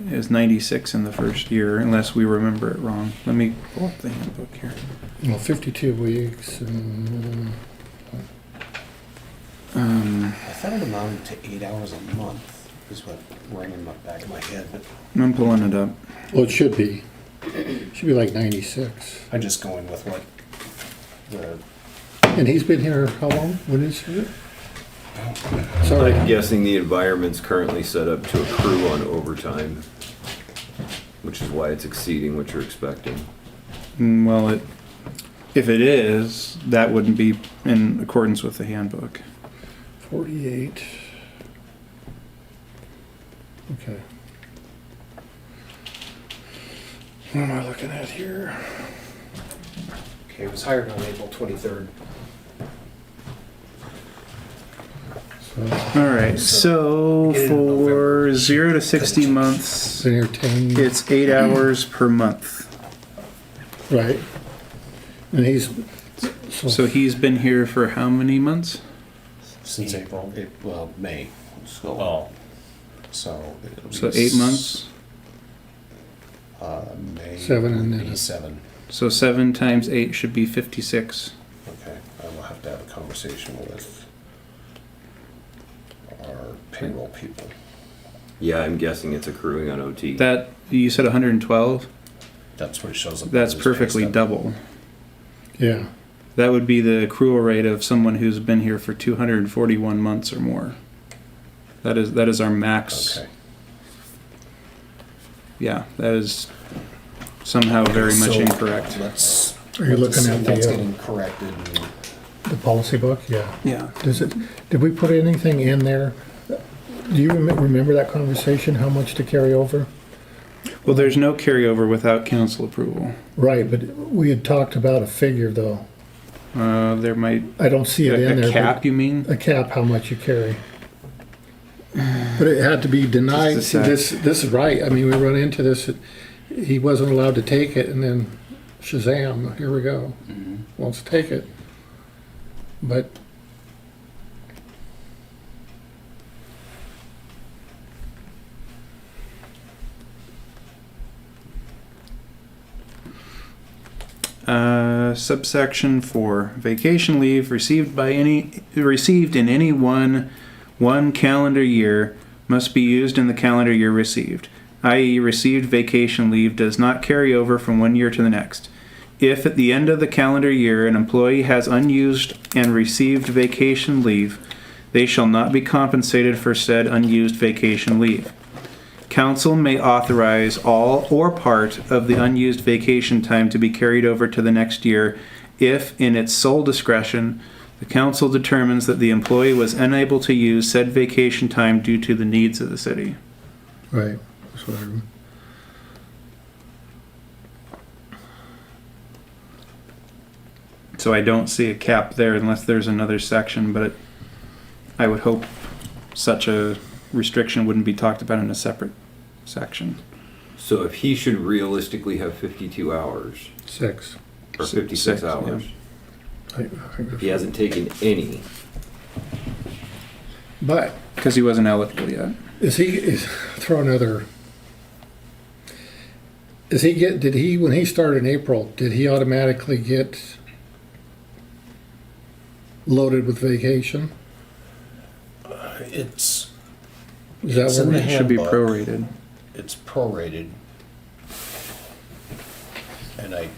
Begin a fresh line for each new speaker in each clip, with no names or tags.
It was 96 in the first year, unless we remember it wrong. Let me pull up the handbook here.
Well, 52 weeks and, um,
Um,
I thought it amounted to eight hours a month, is what rang in my back of my head, but
I'm pulling it up.
well, it should be, should be like 96.
I'm just going with what the,
And he's been here how long? When is it? Sorry.
I'm guessing the environment's currently set up to accrue on overtime, which is why it's exceeding what you're expecting.
Mm, Well, it, if it is, that wouldn't be in accordance with the handbook.
48. Okay. What am I looking at here?
okay, it was hired on April 23rd.
So,
All right, so
Beginning of
for
November.
zero to 60 months,
been here 10,
it's eight hours per month.
right? And he's,
So
Oh.
so,
he's been here for how many months?
Since April, Oh. it- well, May,
So,
so. it'll be
So eight
s-
months?
Uh, May.
Seven and
would
then
be
a-
Seven,
So seven times eight should be 56.
okay, I will have to have a conversation with our payroll people.
Yeah, I'm guessing it's accruing on OT.
That, you said 112?
That's what it shows up.
That's
on this pay
perfectly
stub.
double.
yeah,
That would be the accrual rate of someone who's been here for 241 months or more. That is, that is our max.
Okay.
Yeah, that is somehow very much
So,
incorrect.
Let's.
Are you
let's
looking
see
at the,
what's
uh,
getting corrected and-
the policy book, yeah.
Yeah.
Does it, did we put anything in there? Do you rem- remember that conversation, how much to carry over?
Well, there's no carryover without council approval.
Right, but we had talked about a figure, though.
Uh, there might
I don't see it in
a,
there.
a
but-
cap, you mean?
a cap how much you carry. But it had to be denied.
Just
See,
a
this, this is right. I mean, we run into this, he wasn't allowed to take it and then Shazam, here we go. Wants to take it. But
Uh, subsection four: Vacation leave received by any received in any one one calendar year must be used in the calendar year received. I.e., received vacation leave does not carry over from one year to the next. If at the end of the calendar year an employee has unused and received vacation leave, they shall not be compensated for said unused vacation leave. Council may authorize all or part of the unused vacation time to be carried over to the next year if, in its sole discretion, the council determines that the employee was unable to use said vacation time due to the needs of the city.
Right. That's what I rem-
So I don't see a cap there unless there's another section, but I would hope such a restriction wouldn't be talked about in a separate section.
So if he should realistically have 52 hours,
Six.
or
Six,
56
yeah.
hours,
I- I think
if
that's-
he hasn't taken any,
But
Because he wasn't eligible yet.
is he, is, throw another. Is he get, did he, when he started in April, did he automatically get loaded with vacation?
It's,
Is that
It's
what
in
we
the
It should be
Handbook.
prorated.
it's prorated. And I,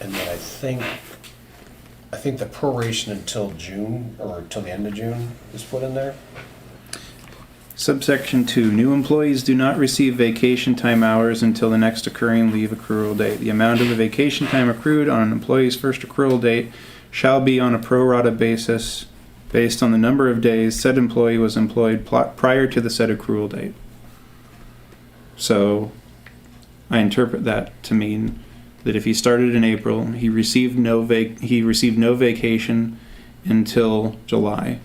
and then I think, I think the proration until June, or till the end of June is put in there.
Subsection 2. New employees do not receive vacation time hours until the next occurring leave accrual date. The amount of the vacation time accrued on an employee's first accrual date shall be on a pro rata basis based on the number of days said employee was employed pl- prior to the said accrual date. So I interpret that to mean that if he started in April, he received no vac- he received no vacation until July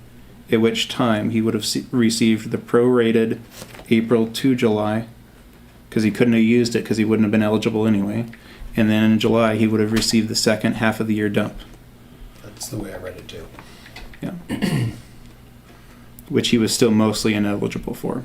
at which time he would have se- received the prorated April to July, because he couldn't have used it because he wouldn't have been eligible anyway. And then in July, he would have received the second half of the year dump,
That's the way I read it too.
which he was still mostly ineligible for.